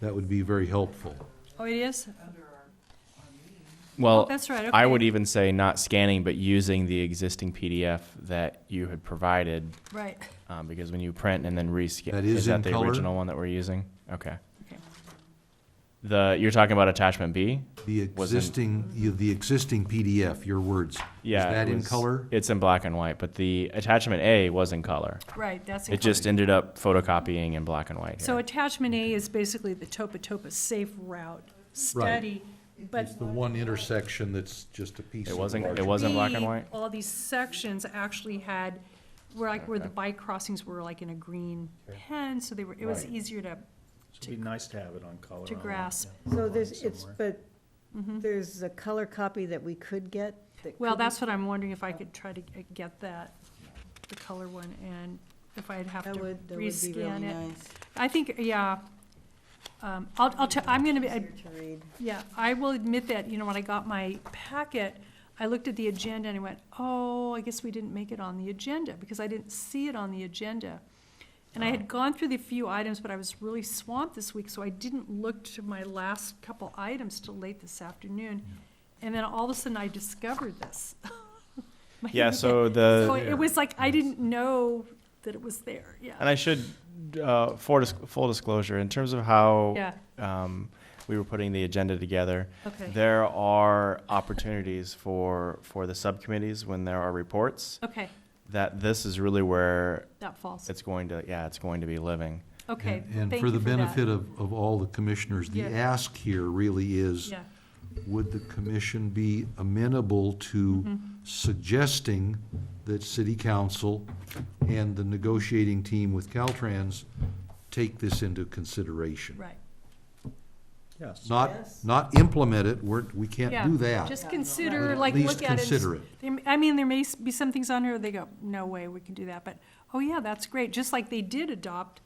That would be very helpful. Oh, it is? Well, Oh, that's right, I okay. would even say not scanning, but using the existing PDF that you had provided, Right. um, because when you print and then rescan, That is is in that the color? original one that we're using? Okay. Okay. The you're talking about attachment B? The Wasn't- existing, you- the existing PDF, your words. Yeah. Is that it in was- color? It's in black and white, but the attachment A was in color. Right, that's. It just ended up photocopying in black and white. So here. attachment A is basically the Topa Topa Safe Route study, but. It's the one intersection that's just a piece. It of wasn't- large- it wasn't- black and B, white? All these sections actually had, were like, where the bike crossings were like in a green pen, so they were, it was Right. easier to, So It'd be nice to have it on color. to on- grasp. yeah, So on there's, it's, somewhere. but there's a color copy that we could get? that Mm-hmm. Well, could be- that's what I'm wondering, if I could try to g- get that, the color one, and if I'd have That to would, that would be really rescan it. nice. I think, yeah, um, I'll, I'll, tell- I'm gonna be, I- Easier to read. Yeah, I will admit that, you know, when I got my packet, I looked at the agenda and I went, oh, I guess we didn't make it on the agenda, because I didn't see it on the agenda. And I had gone through the few items, but I was really swamped this week, so I didn't look to my last couple items till late this afternoon. And then all of a sudden, I discovered this. My Yeah, email. so uh, the- So it was like, I didn't know that it was there, And yeah. I should, uh, for dis- full disclosure, in terms of how Yeah, um, we were putting the agenda together. okay, There are opportunities for, for the subcommittees when there are reports, okay, that this is really where that falls. it's going to, yeah, it's going to be living. Okay, And- thank And you for the for that. benefit of, of all the commissioners, the Yeah. ask here really is, Yeah. would the commission be amenable Mm-hmm. to suggesting that city council and the negotiating team with Caltrans take this into consideration? Right. Yes. Not, Yes. not implement it, we're, we Yeah, can't do that. Just But consider, at like, least look at it. and s- consider it. there- I mean, there may s- be some things on here, they go, no way, we can do that, but, oh yeah, that's great, just like they did adopt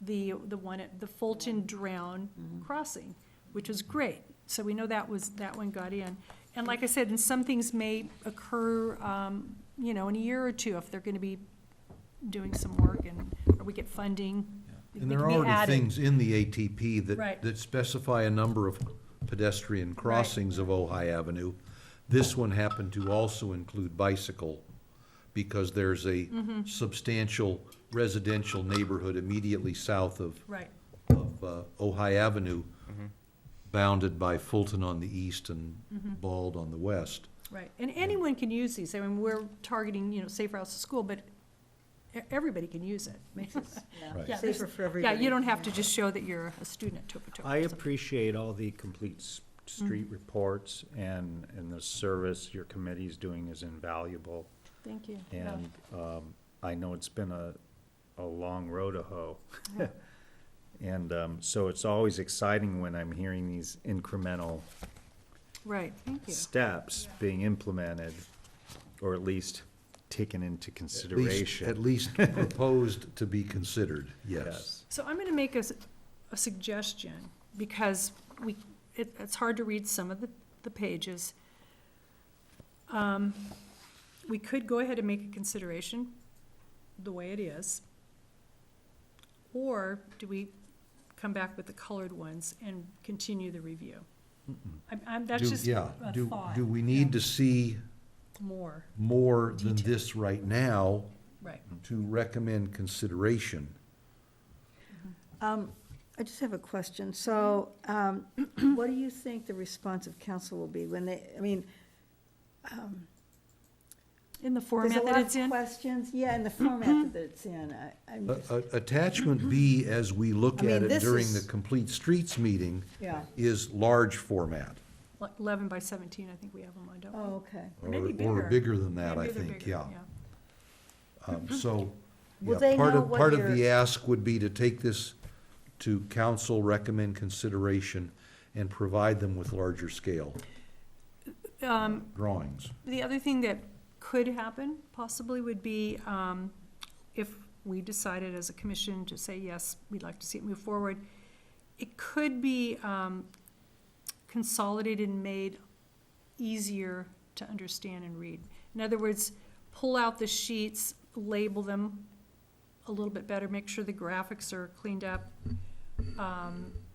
the, the one at the Fulton Drown Crossing, which was great, so we know that was, that one got in. And like I said, and some things may occur, um, you know, in a year or two, if they're gonna be doing some work and, or we get funding. they And there are can be already added. things in the ATP Right. that, that specify a number of pedestrian crossings of Ojai Avenue. This one happened to also include bicycle, because there's a Mm-hmm. substantial residential neighborhood immediately south of, Right, of uh, Ojai Avenue, bounded by Fulton on the east and Mm-hmm. Bald on the west. right, and anyone can use these, I mean, we're targeting, you know, safe routes to school, but e- everybody can use it. Makes it, Right. yeah, Yeah, safer for Yeah, everybody. you don't have to just show that you're a student at Topa Topa. I appreciate all the complete s- street reports and, and the service your committee's doing is invaluable. Thank you. And, um, I know it's been a, a long road to hoe. And, um, so it's always exciting when I'm hearing these incremental Right, thank you. steps being implemented, or at least taken into At least- consideration. At least proposed to be considered, yes. Yes. So I'm going to make a, s- a suggestion, because we, it, it's hard to read some of the, the pages. Um, We could go ahead and make a consideration the way it is. Or do we come back with the colored ones and continue the review? I'm, I'm, that's Do- just yeah, a do- thought. Do we need to see? More, more than Detail. this right now right. to recommend consideration. Um, I just have a question. So, um, what do you think the response of council will be when they, I mean, In the there's a format that lot it's in? of Mm-hmm. questions, yeah, and the format that it's in, I, I'm A- just, a- Attachment B, as we look I mean, at it this during the is- Complete Streets meeting, yeah, is large format. Like Eleven by seventeen, I think we have them on, don't we? oh, okay. uh, Or maybe Or bigger. bigger than that, I Maybe they're think, bigger, yeah. Um, So, Will yeah, they part know of, what part of your- the ask would be to take this to council, recommend consideration, and provide them with larger scale Um, drawings. the other thing that could happen possibly would be, um, if we decided as a commission to say, yes, we'd like to see it move forward, it could be, um, consolidated and made easier to understand and read. In other words, pull out the sheets, label them a little bit better, make sure the graphics are cleaned up, um,